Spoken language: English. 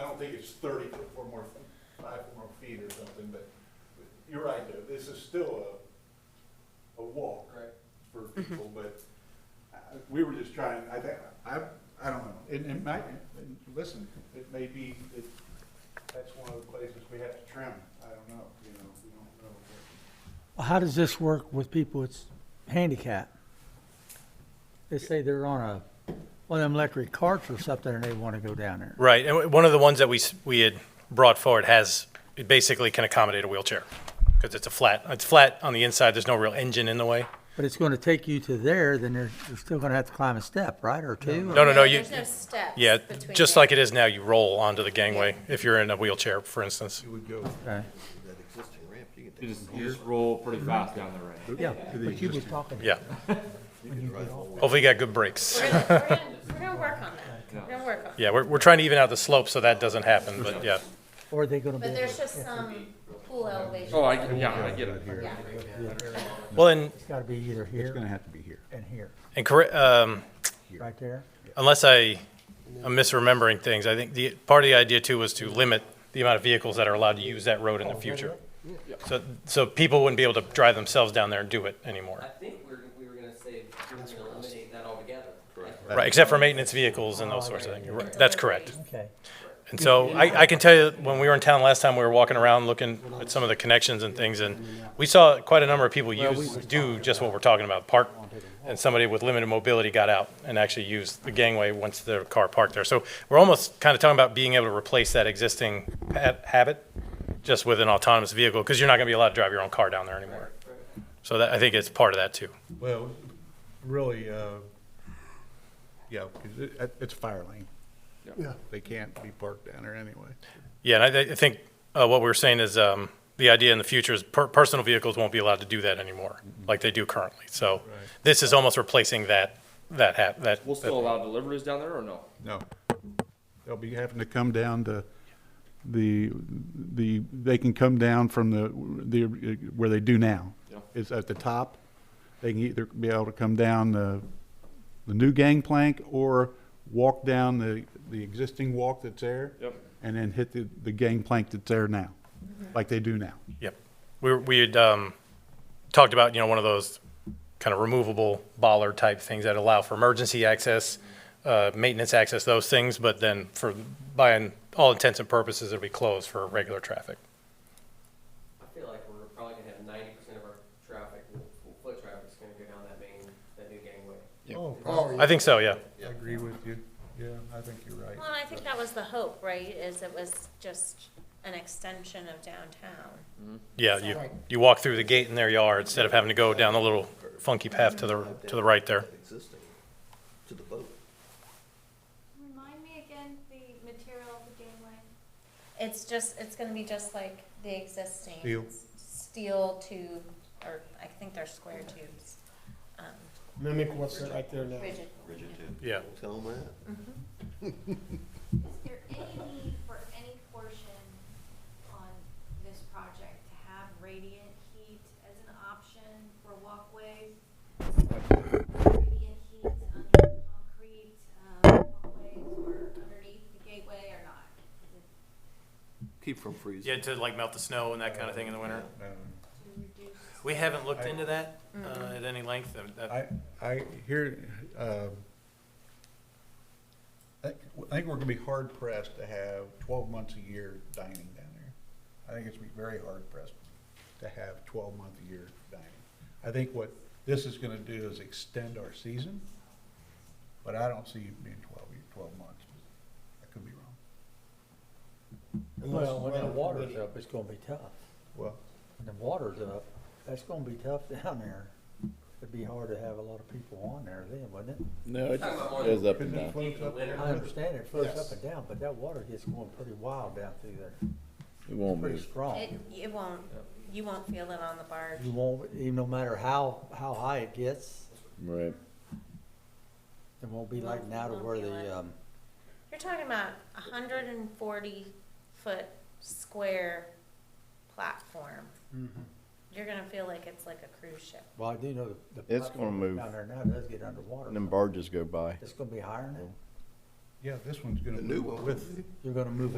don't think it's thirty foot, four more, f- five more feet or something, but you're right, though, this is still a, a walk Right. for people, but uh, we were just trying, I think, I, I don't know, it, it might, and listen, it may be that that's one of the places we have to trim, I don't know, you know, we don't know. How does this work with people that's handicapped? They say they're on a, one of them electric carts or something, and they want to go down there. Right, and w- one of the ones that we, s- we had brought forward has, it basically can accommodate a wheelchair, because it's a flat, it's flat on the inside, there's no real engine in the way. But it's going to take you to there, then you're, you're still going to have to climb a step, right, or two? No, no, no, you, There's no steps. yeah, between just there. like it is now, you roll onto the gangway if you're in a wheelchair, for instance. You would go. Okay. You just, you just roll pretty fast down the ramp. Yeah, but you was talking. Yeah. Hopefully you got good brakes. We're gonna, we're gonna, we're gonna work on that. We're gonna work on it. Yeah, we're, we're trying to even out the slope so that doesn't happen, but yeah. Or are they going to be? But there's just some pool elevation. Oh, I, yeah, I get it. Yeah. Well, and, It's got to be either It's gonna here have to be here. and here, and, corre- um, right there. unless I, I'm misremembering things, I think the, part of the idea too was to limit the amount of vehicles that are allowed to use that road in the future. So, so people wouldn't be able to drive themselves down there and do it anymore. I think we're, we were gonna say, we were gonna eliminate that altogether. Correct. Right, except for maintenance vehicles and those sorts of things. You're right. That's correct. Okay. And so I, I can tell you, when we were in town last time, we were walking around looking at some of the connections and things, and we saw quite a number of people use, do just what we're talking about, park, and somebody with limited mobility got out and actually used the gangway once their car parked there. So we're almost kind of talking about being able to replace that existing ha- habit just with an autonomous vehicle, because you're not going to be allowed to drive your own car down there anymore. So that, I think it's part of that too. Well, really, uh, yeah, because it, it's a fire lane. Yeah. They can't be parked down there anyway. Yeah, and I, I think uh, what we were saying is um, the idea in the future is per- personal vehicles won't be allowed to do that anymore, like they do currently. So this is almost replacing that that hap- that. We'll still allow deliveries down there or no? No. They'll be having to come down the, the, the, they can come down from the, the, where they do now. Yeah. It's at the top. They can either be able to come down the, the new gangplank or walk down the, the existing walk that's there. Yep. And then hit the, the gangplank that's there now, like they do now. Yep, we were- we had um, talked about you know one of those kind of removable bollard type things that allow for emergency access, uh, maintenance access, those things. But then for by an- all intents and purposes, it'll be closed for regular traffic. I feel like we're probably gonna have ninety percent of our traffic, foot traffic's gonna go down that main, that new gangway. Oh, I think so. Yeah. I agree with you. Yeah, I think you're right. Well, and I think that was the hope, right, is it was just an extension of downtown. Yeah, you, you walk through the gate in their yard instead of having to go down the little funky path to the, to the right there. Existing, to the boat. Remind me again the material of the gangway. It's just, it's gonna be just like the existing. Steel. Steel tube, or I think they're square tubes, um, mimic what's right there now. rigid. Rigid tube. Yeah. Tell 'em that. Is there any need for any portion on this project to have radiant heat as an option for walkways? Radiant heat under concrete, um, walkways or underneath the gateway or not? Is it Keep from freezing. Yeah, to like melt the snow and that kind of thing in the winter. to reduce? We haven't looked into that, uh, at any length. and that- I, I hear, um, I think, I think we're gonna be hard pressed to have twelve months a year dining down there. I think it's gonna be very hard pressed to have twelve month a year dining. I think what this is gonna do is extend our season, but I don't see it being twelve, year- twelve months. I could be wrong. Well, when the water's up, it's going to be tough. Well, When the water's up, that's going to be tough down there. It'd be hard to have a lot of people on there then, wouldn't it? No, it Talking about more goes than up couldn't and it down. float up? winter. I understand it flows Yes. up and down, but that water gets going pretty wild down through there, It won't pretty move. strong. It, it won't, you won't feel it on the barge. You won't, even no matter how, how high it gets, Right. it won't be like now to where the, um, You're talking about a hundred and forty foot square platform. You're gonna feel like it's like a cruise ship. well, I do know the. the It's gonna platform move. Down there now does get underwater. And then barges go by. It's gonna be higher now. Yeah, this one's gonna The new move one. with. You're gonna move